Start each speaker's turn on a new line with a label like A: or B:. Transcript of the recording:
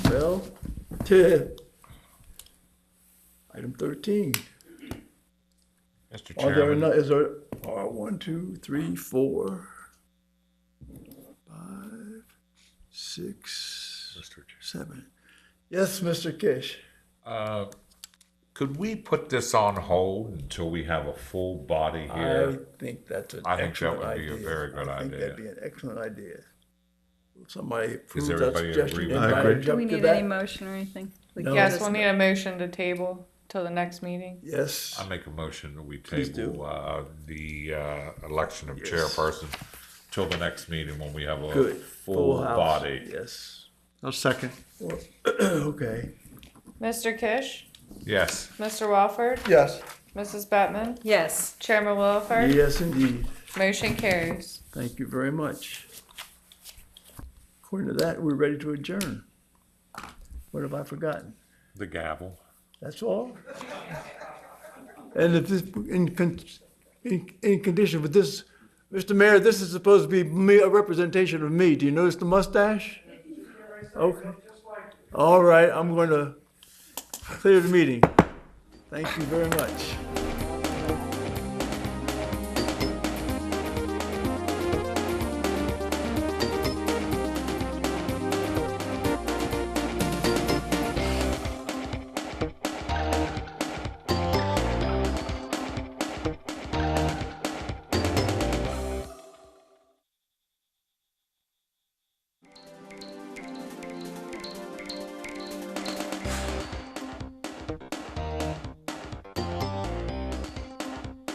A: Well, item thirteen.
B: Mr.
A: Are there
B: Chairman,
A: enough, is there, are one, two, three, four, five, six, seven? Yes, Mr. Kish.
B: uh, could we put this on hold until we have a full body
A: I
B: here?
A: think that's an
B: I think that
A: excellent
B: would be
A: idea.
B: a very good
A: I think that'd be
B: idea.
A: an excellent idea. Will Somebody approve that
B: everybody in
A: suggestion.
B: agreement?
A: Anybody
C: I agree.
D: Do
A: jump
D: we
A: to
D: need
A: that?
D: any motion or anything? Like,
A: No.
C: Yes,
D: just-
C: we'll need a motion to table till the next meeting.
A: Yes,
B: I make a motion that we
A: Please do.
B: table, uh, the, uh, election of
A: Yes.
B: chairperson till the next meeting when we have a
A: good.
B: full
A: house.
B: body.
A: Yes.
E: I'll second.
A: Well, Okay.
C: Mr. Kish,
B: Yes.
C: Mr. Walford,
E: Yes.
C: Mrs. Bettman,
D: Yes.
C: Chairman Wilford,
A: Yes, indeed.
C: motion carries.
A: Thank you very much. According to that, we're ready to adjourn. What have I forgotten?
B: The gavel.
A: That's all? And if this, in, con- in, in condition with this, Mr. Mayor, this is supposed to be me, a representation of me. Do you notice the mustache? Okay. All right, I'm going to clear the meeting. Thank you very much.